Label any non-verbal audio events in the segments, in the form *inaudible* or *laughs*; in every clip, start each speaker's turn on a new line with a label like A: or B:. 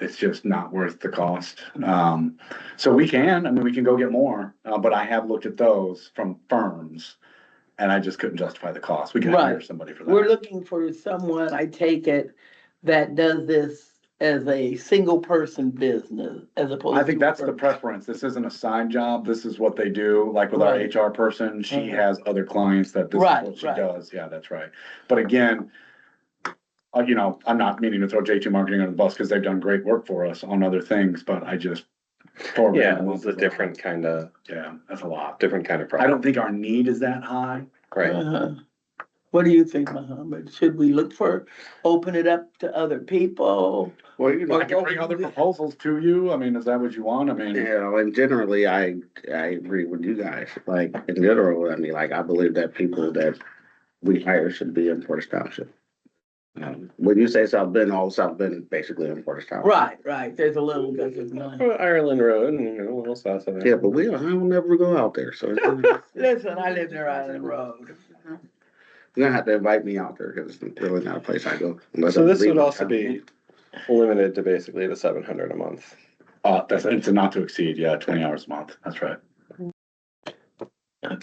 A: it's just not worth the cost. Um, so we can, I mean, we can go get more, uh, but I have looked at those from firms. And I just couldn't justify the cost. We can hire
B: Right.
A: somebody for
B: We're
A: that.
B: looking for someone, I take it, that does this as a single person business as opposed to.
A: I think that's
B: for-
A: the preference. This isn't a side job. This is what they do. Like with our
B: Right.
A: HR person, she
B: Mhm.
A: has other clients that this is
B: Right,
A: what she
B: right.
A: does. Yeah, that's right. But again, uh, you know, I'm not meaning to throw J2 Marketing under the bus because they've done great work for us on other things, but I just.
C: Yeah, it's a different kind of,
A: Yeah, that's a lot.
C: different kind of
A: I
C: problem,
A: don't think our need is that high.
C: right?
B: Uh-huh. What do you think, Mohammed? Should we look for, open it up to other people?
D: Well, you know,
A: I can bring other proposals to you. I mean, is that what you want? I mean,
D: you know, and generally, I, I agree with you guys, like, in general, I mean, like, I believe that people that we hire should be in Portage Township. Um, When you say South Bend, all South Bend is basically in Portage Township.
B: Right, right, there's a little bit of none.
C: Well, Ireland Road and, you know, a little south of
D: Yeah,
C: there.
D: but we, don't- I don't never go out there, so.
B: *laughs* Listen, I live near Island Road.
D: You're gonna have to invite me out there, cause it's really not a place I go. unless
C: So
D: I'm
C: this would
D: leaving
C: also
D: town.
C: be limited to basically the seven hundred a month.
A: uh, that's, it's a not to exceed, yeah, twenty hours a month. That's right.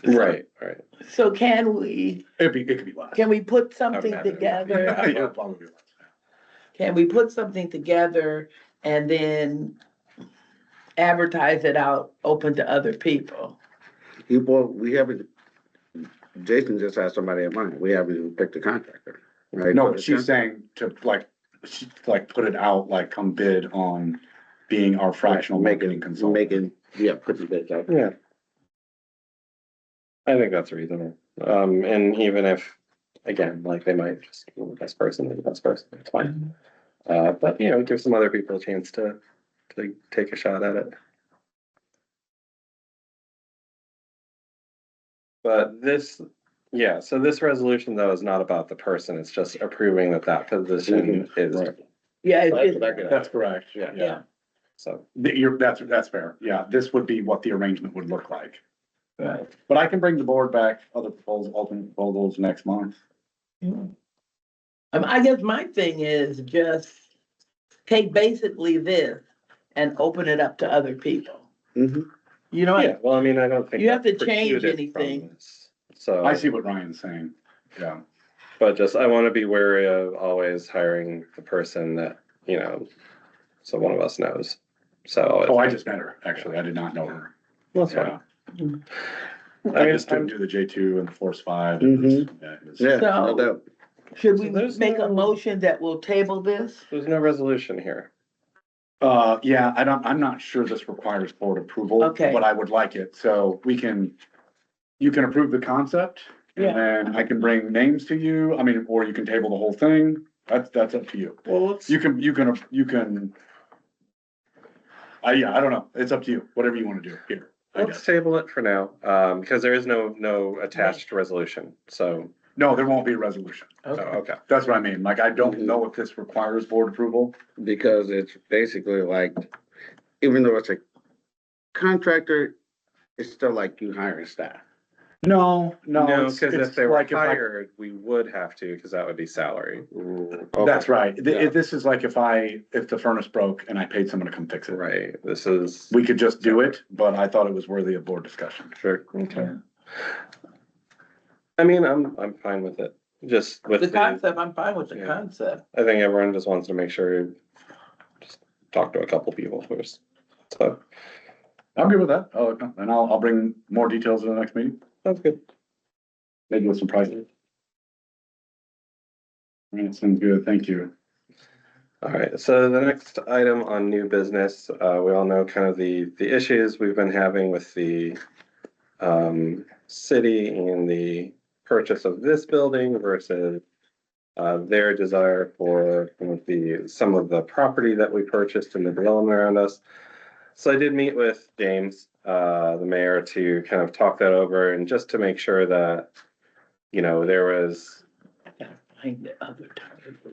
C: Right, right.
B: So can we,
A: It'd be, it could be less.
B: can we put something
C: imagine it would be.
B: together?
A: *laughs* Yeah, it'd probably be less.
B: Can we put something together and then advertise it out, open to other people?
D: You, well, we haven't, Jason just has somebody in mind, we haven't even picked a contractor, right?
A: No,
D: So
A: but
D: it's
A: she's
D: not-
A: saying to like, she, like, put it out, like, come bid on being our fractional marketing
D: Making,
A: consultant.
D: making, yeah, put the bids out.
C: Yeah. I think that's reasonable. Um, and even if, again, like they might just, be the best person, the best person, it's fine. Uh, but you know, give some other people a chance to, to take a shot at it. But this, yeah, so this resolution though is not about the person, it's just approving that that position
B: Mm-hmm.
C: is,
D: right.
B: Yeah, it's
C: That's
B: just-
C: what I could-
A: That's correct.
C: Yeah.
A: Yeah.
C: so.
A: Th- You're, that's, that's fair. Yeah, this would be what the arrangement would look like.
B: Right.
A: But I can bring the board back other proposals, alternate proposals next month.
B: Um, I guess my thing is just take basically this and open it up to other people.
D: Mhm.
B: You know,
C: Yeah, well, I mean, I don't think.
B: You have
C: that
B: to change
C: precluded from
B: anything.
C: this. So.
A: I see what Ryan's saying. Yeah.
C: But just, I wanna be wary of always hiring the person that, you know, so one of us knows, so.
A: Oh, I just met her, actually. I did not know her.
C: That's
A: Yeah.
C: fine.
A: I
C: mean,
A: just didn't
C: I'm-
A: do the J two and the force five.
D: Mhm.
A: Yeah, it was-
D: Yeah,
B: So-
D: no doubt.
B: should we
C: So there's
B: make a
C: no-
B: motion that will table this?
C: There's no resolution here.
A: Uh, yeah, I don't, I'm not sure this requires board approval.
B: Okay.
A: But I would like it, so we can, you can approve the concept.
B: Yeah.
A: And then I can bring names to you, I mean, or you can table the whole thing, that's, that's up to you.
C: Well, let's.
A: You can, you can, you can. I, yeah, I don't know, it's up to you, whatever you wanna do here, I
C: Let's
A: guess.
C: table it for now, um, because there is no, no attached resolution, so,
A: No, there won't be a resolution,
C: oh, okay.
A: that's what I mean, like, I don't know if this requires board approval.
D: because it's basically like, even though it's a contractor, it's still like you hiring staff.
A: No, no.
C: No,
A: it's-
C: because if
A: it's
C: they were
A: like if I-
C: hired, we would have to, because that would be salary.
A: That's right. Th-
D: Yeah.
A: This is like if I, if the furnace broke and I paid someone to come fix it.
C: Right, this is.
A: We could just do it, but I thought it was worthy of board discussion.
C: Sure. Okay. I mean, I'm, I'm fine with it, just with
B: The
C: the,
B: concept, I'm fine with the
C: Yeah.
B: concept.
C: I think everyone just wants to make sure, just talk to a couple people first. So,
A: I'm good with that. Oh, okay. and I'll, I'll bring more details in the next meeting,
C: that's good.
A: maybe with some prices. All right, sounds good. Thank you.
C: All right, so the next item on new business, uh, we all know kind of the, the issues we've been having with the um, city and the purchase of this building versus uh, their desire for some of the, some of the property that we purchased and the development around us. So I did meet with James, uh, the mayor, to kind of talk that over and just to make sure that, you know, there was
B: I gotta Find the other time.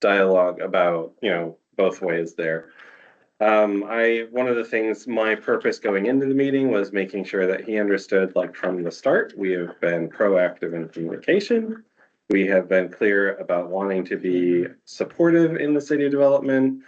C: dialogue about, you know, both ways there. Um, I, one of the things, my purpose going into the meeting was making sure that he understood, like, from the start, we have been proactive in communication. We have been clear about wanting to be supportive in the city development.